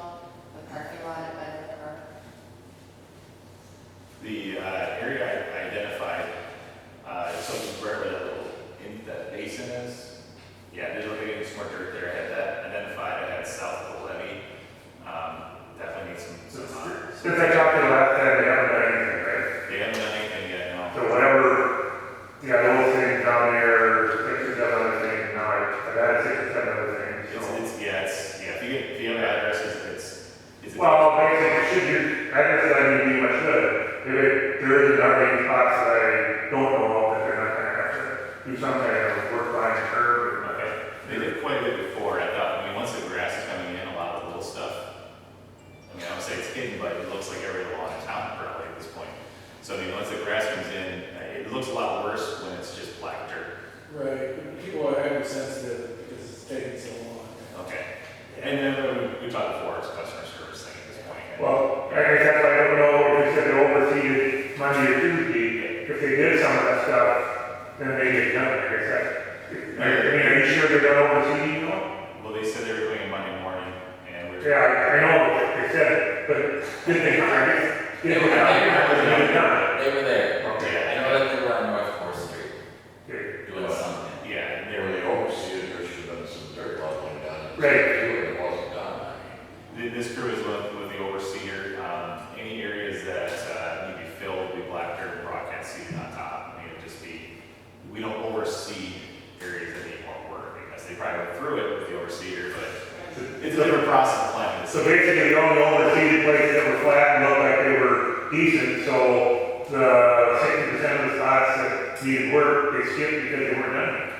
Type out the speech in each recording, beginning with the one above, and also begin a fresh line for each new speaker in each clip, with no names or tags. uh, Um,
other things,
It's,
so.
it's, yeah, it's, yeah, if you get, if you have addresses, it's, it's.
Well, basically, should you, I guess I mean, you much should, if it, there is another spots that I don't know of, that they're not gonna have to do some kind of work by curb. or-
Okay, they did quite a bit before, I thought, I mean, once the grass is coming in, a lot of the little stuff, I mean, I would say it's hidden, but it looks like every lawn in town probably at this point. So, I mean, once the grass comes in, uh, it looks a lot worse when it's just black dirt,
Right, people are hypersensitive because it's taking so long.
okay? And then we, we talked before, it's customer service thing at this point. and-
Well, I guess that's why I don't know if they said they overseeded Monday or Tuesday, if they did some of that stuff, then they get done, I guess that. I mean, are you sure they're not overseeding, you know?
Well, they said they were going in Monday morning, and we we're.
Yeah, I I know, they said it, but did they, I guess, did they, did they not?
They were there.
Okay.
I know that they were on North Fourth Street
Okay.
doing something.
Yeah, and they
They
were,
were overseas, there should have been some dirt leveling done.
Right.
It wasn't done.
Th- This crew is with, with the overseer, um, any areas that, uh, need to be filled will be black dirt, broadcast seeded on top, I mean, it'd just be, we don't oversee areas that need more work, because they probably went through it with the overseer, but it's a different process of planning.
So basically, the only overseeded places that were flat and looked like they were decent, so the sixty percent of the spots that needed work, they skipped because they weren't done.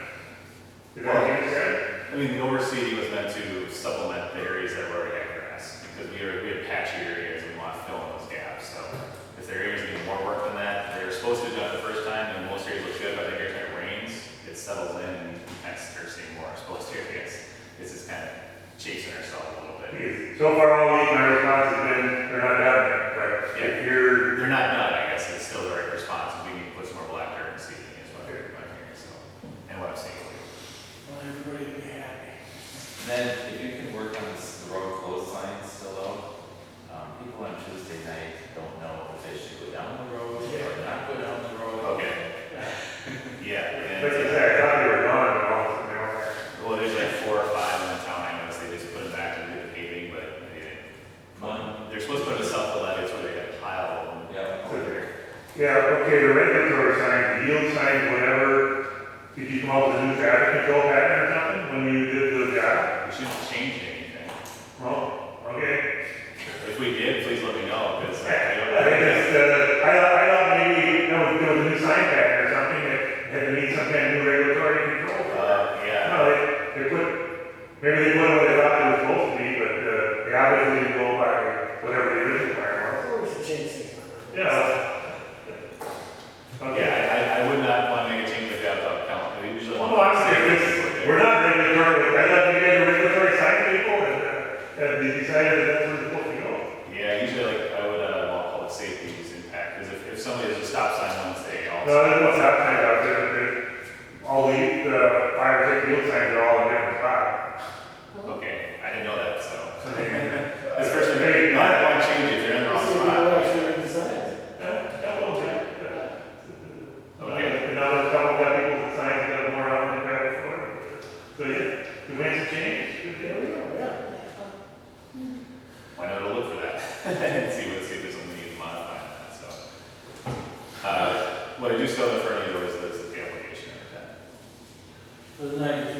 Is that what you said?
I mean, the overseeding was meant to supplement the areas that were already had grass, because we are, we have patchy areas, we want to fill in those gaps, so if there are areas that need more work than that, they were supposed to do it the first time, and most areas look good, but I think every time it rains, it settles in, and we kind of start seeing more exposed areas. This is kind of chasing ourselves a little bit.
Because So far, all week, my response has been, they're not done yet, but if you're,
They're not done, I guess, it's still the right response, we need to put some more black dirt and seeding is what I'm hearing, so, and what I'm seeing.
Want everybody to be happy.
And Then, if you can work on this, the road closed sign still out, um, people on Tuesday night don't know if they should go down the road or not go down the road.
Okay. Yeah, and. uh,
like you said, I thought they were gone, and all, you know.
Well, there's like four or five in the town, I noticed, they just put them back and did the paving, but they didn't.
One,
They're supposed to put a self-levy, it's where they got a pile of them.
yeah, over there.
Yeah, okay, the regulatory sign, the yield sign, whatever, did you come up with a new traffic control pattern or something when you did the job?
We shouldn't change anything.
Well, okay.
If we did, please let me know, because I
I think
don't.
it's, uh, I thought, I thought maybe, you know, there was a new sign pattern or something that had to meet some kind of new regulatory control.
Uh, yeah,
No, they, they put, maybe they put what they thought it was supposed to be, but, uh, they obviously didn't go by whatever the original plan was.
Or we should change things. around.
Yeah. Okay.
yeah, I- I, I would not want to make a change like that without count, we usually. want-
Well, Oh, I'm serious, we're not regulatory, I thought you guys were regulatory sign people and, uh, and they decided that that's where they're supposed to go.
Yeah, usually like, I would, uh, want public safety is impact, because if, if somebody does a oh, stop sign once, they all.
No, that's what's happening out there, They- all the, the fire safety yield signs are all in different spots.
Okay, I didn't know that, so.
Hey,
This person, may not want to change it, they're in the wrong
So we
spot.
know actually decide.
Okay.
Another couple of people that signed got more out than ever before. So yeah, the winds have changed. Good
There
deal.
we go, yeah.
why not go look for that and see what, see if there's something you can modify on that, so. Uh, what I do still have in front of you is the, is the application of that.
For the night, if
Uh,
Uh,
uh, Um,